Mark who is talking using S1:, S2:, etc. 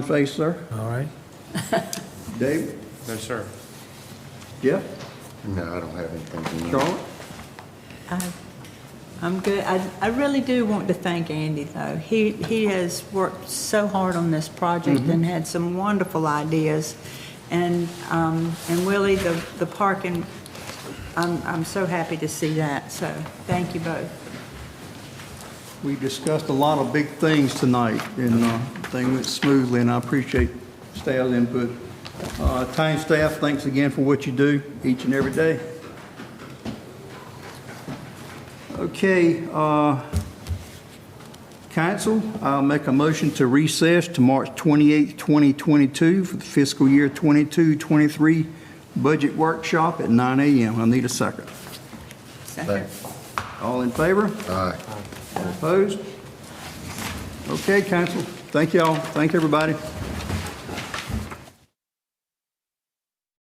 S1: face, sir?
S2: All right.
S1: Dave?
S3: No, sir.
S1: Jeff?
S4: No, I don't have anything to add.
S1: Charlotte?
S5: I- I'm good. I, I really do want to thank Andy, though. He, he has worked so hard on this project and had some wonderful ideas. And, um, and Willie, the, the park, and I'm, I'm so happy to see that, so thank you both.
S1: We discussed a lot of big things tonight, and uh, thing went smoothly, and I appreciate staff's input. Uh, Town staff, thanks again for what you do each and every day. Okay, uh, council, I'll make a motion to recess to March 28, 2022 for the fiscal year 22-23 budget workshop at 9 a.m. I need a second.
S5: Second.
S1: All in favor?
S4: Aye.
S1: Opposed? Okay, council, thank y'all, thank everybody.